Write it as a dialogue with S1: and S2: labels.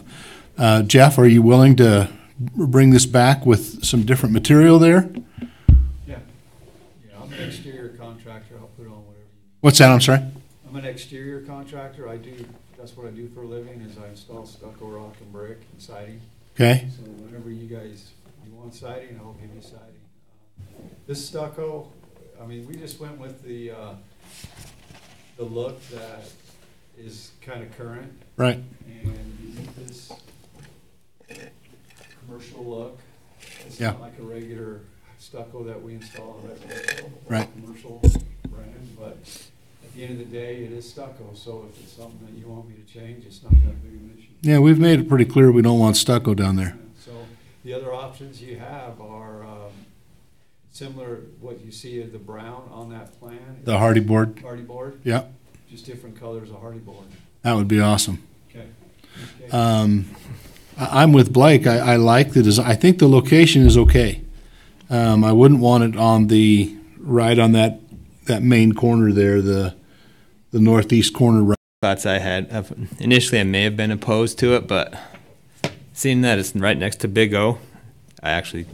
S1: Uh, Jeff, are you willing to bring this back with some different material there?
S2: Yeah. Yeah, I'm an exterior contractor, I'll put on whatever. you-
S1: What's that? I'm sorry.
S2: I'm an exterior contractor, I do, that's what I do for a living, is I install stucco, rock, and brick, and siding.
S1: Okay.
S2: So whenever you guys, you want siding, I'll give you siding. Uh, This stucco, I mean, we just went with the, uh, the look that is kind of current.
S1: Right.
S2: and you get this commercial look. It's
S1: Yeah.
S2: not like a regular stucco that we install in a residential. or
S1: Right.
S2: Commercial brand, but at the end of the day, it is stucco, so if it's something that you want me to change, it's not that big of an issue.
S1: Yeah, we've made it pretty clear we don't want stucco down there.
S2: So the other options you have are, um, similar, what you see of the brown on that plan.
S1: The hardy board.
S2: Hardy board,
S1: Yeah,
S2: just different colors of hardy board.
S1: that would be awesome.
S2: Okay. Okay.
S1: Um, I, I'm with Blake. I, I like the design. I think the location is okay. Um, I wouldn't want it on the right on that that main corner there, the the northeast corner. Right.
S3: thoughts I had. Of- Initially, I may have been opposed to it, but seeing that it's right next to Big O, I actually